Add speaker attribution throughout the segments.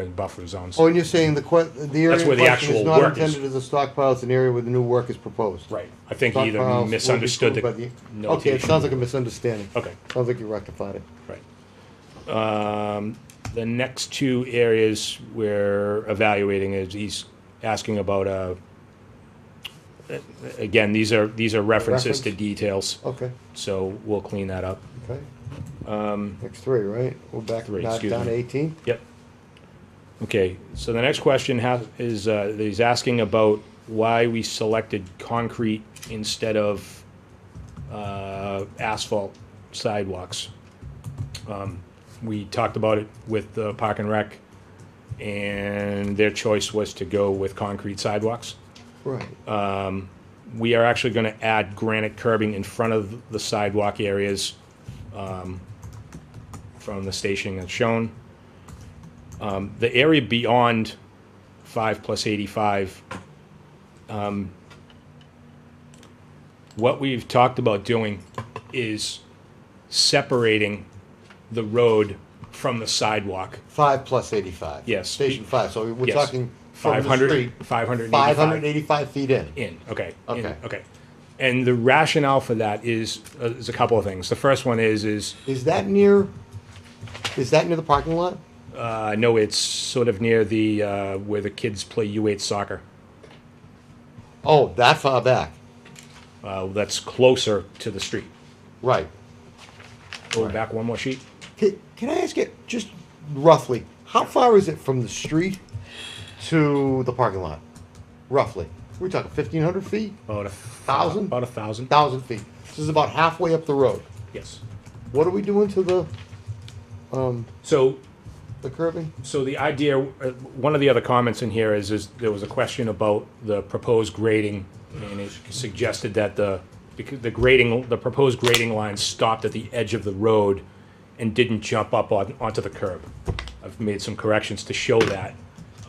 Speaker 1: in buffer zones.
Speaker 2: Oh, and you're saying the que, the area
Speaker 1: That's
Speaker 2: in
Speaker 1: where the
Speaker 2: question
Speaker 1: actual
Speaker 2: is not
Speaker 1: work is.
Speaker 2: intended as a stockpile, it's an area where the new work is proposed?
Speaker 1: Right, I think he
Speaker 2: Stockpiles will
Speaker 1: either
Speaker 2: be
Speaker 1: misunderstood the
Speaker 2: approved by the- Okay, it
Speaker 1: notation.
Speaker 2: sounds like a misunderstanding.
Speaker 1: Okay.
Speaker 2: Sounds like you rectified it.
Speaker 1: Right. Um, The next two areas we're evaluating is, he's asking about, uh, a- again, these are, these are references to
Speaker 2: Reference?
Speaker 1: details,
Speaker 2: Okay,
Speaker 1: so we'll clean that up.
Speaker 2: okay. Um. Next three, right? We're back,
Speaker 1: Three,
Speaker 2: knock
Speaker 1: excuse
Speaker 2: down
Speaker 1: me.
Speaker 2: to eighteen?
Speaker 1: Yep. Okay, so the next question has, is, uh, he's asking about why we selected concrete instead of, uh, asphalt sidewalks. Um, We talked about it with the Park and Rec, and their choice was to go with concrete sidewalks.
Speaker 2: Right.
Speaker 1: Uh, We are actually gonna add granite curbing in front of the sidewalk areas, um, from the station that's shown. Um, the area beyond five plus eighty-five, um, what we've talked about doing is separating the road from the sidewalk.
Speaker 2: Five plus eighty-five.
Speaker 1: Yes.
Speaker 2: Station five, so we're
Speaker 1: Yes.
Speaker 2: talking from
Speaker 1: 500
Speaker 2: the street,
Speaker 1: 585.
Speaker 2: five hundred and eighty-five feet in.
Speaker 1: In, okay. in,
Speaker 2: Okay.
Speaker 1: okay. And the rationale for that is, uh, is a couple of things. The first one is, is,
Speaker 2: Is that near, is that near the parking lot?
Speaker 1: uh, no, it's sort of near the, uh, where the kids play U8 soccer.
Speaker 2: Oh, that far back,
Speaker 1: Uh, that's closer to the street.
Speaker 2: right.
Speaker 1: Go back one more sheet.
Speaker 2: Can, can I ask it, just roughly, how far is it from the street to the parking lot? Roughly, we're talking fifteen hundred feet,
Speaker 1: About a
Speaker 2: Thousand?
Speaker 1: About a thousand.
Speaker 2: thousand feet. This is about halfway up the road.
Speaker 1: Yes.
Speaker 2: What are we doing to the, um,
Speaker 1: So,
Speaker 2: the curving?
Speaker 1: so the idea, uh, one of the other comments in here is, is there was a question about the proposed grading, and it suggested that the, because the grading, the proposed grading line stopped at the edge of the road and didn't jump up on, onto the curb. I've made some corrections to show that,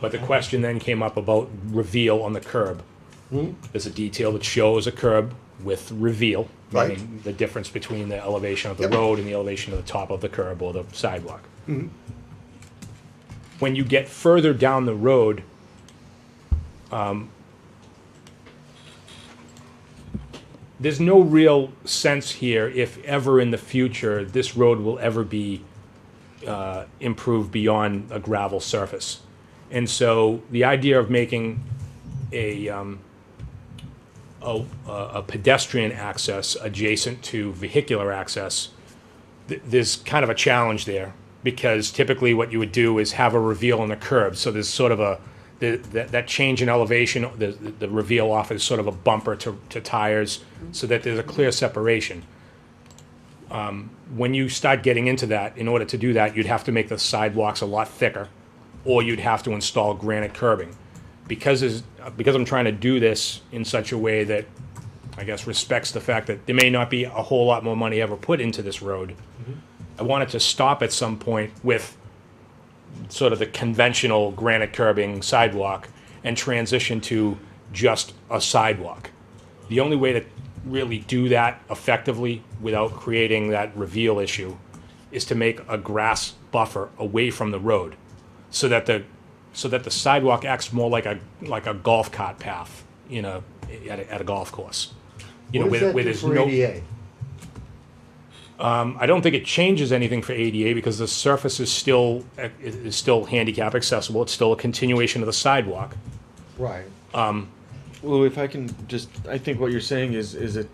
Speaker 1: but the question then came up about reveal on the curb.
Speaker 2: Hmm?
Speaker 1: There's a detail that shows a curb with reveal,
Speaker 2: Right.
Speaker 1: meaning the difference between the elevation of the
Speaker 2: Yep.
Speaker 1: road and the elevation of the top of the curb or the sidewalk. When you get further down the road, um, there's no real sense here if ever in the future this road will ever be uh, improved beyond a gravel surface. And so the idea of making a, um, a, a pedestrian access adjacent to vehicular access, th- there's kind of a challenge there because typically what you would do is have a reveal on the curb. So there's sort of a the, that, that change in elevation, the, the reveal off is sort of a bumper to, to tires so that there's a clear separation. Um, when you start getting into that, in order to do that, you'd have to make the sidewalks a lot thicker or you'd have to install granite curbing. Because, is, because I'm trying to do this in such a way that I guess respects the fact that there may not be a whole lot more money ever put into this road. I wanted to stop at some point with sort of the conventional granite curbing sidewalk and transition to just a sidewalk. The only way to really do that effectively without creating that reveal issue is to make a grass buffer away from the road so that the so that the sidewalk acts more like a like a golf cart path in a at a, at a golf course. You know,
Speaker 2: What does
Speaker 1: where,
Speaker 2: that
Speaker 1: where
Speaker 2: do
Speaker 1: there's
Speaker 2: for
Speaker 1: no
Speaker 2: ADA?
Speaker 1: I don't think it changes anything for ADA because the surface is still, is still handicap accessible. It's still a continuation of the sidewalk.
Speaker 2: Right,
Speaker 3: Lou, if I can just, I think what you're saying is, is it,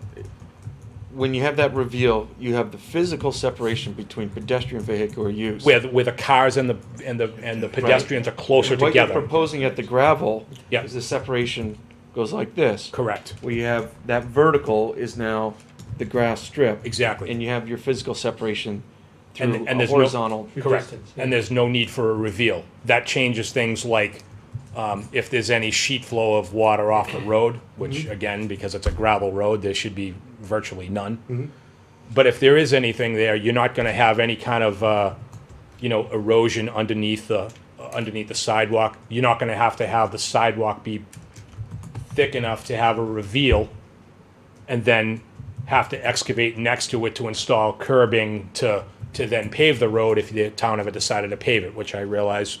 Speaker 3: when you have that reveal, you have the physical separation between pedestrian vehicular use.
Speaker 1: Where, the- where the cars and the, and the, and the pedestrians are closer
Speaker 3: And what you're
Speaker 1: together.
Speaker 3: proposing at the gravel
Speaker 1: Yeah.
Speaker 3: is the separation goes like this.
Speaker 1: Correct.
Speaker 3: Where you have that vertical is now the grass strip.
Speaker 1: Exactly.
Speaker 3: And you have your physical separation
Speaker 1: And-
Speaker 3: through
Speaker 1: and
Speaker 3: a
Speaker 1: there's no-
Speaker 3: horizontal.
Speaker 1: Correct. And there's no need for a reveal. That changes things like, um, if there's any sheet flow of water off the road, which again, because it's a gravel road, there should be virtually none. But if there is anything there, you're not gonna have any kind of, uh, you know, erosion underneath the, uh, underneath the sidewalk. You're not gonna have to have the sidewalk be thick enough to have a reveal and then have to excavate next to it to install curbing to, to then pave the road if the town ever decided to pave it, which I realize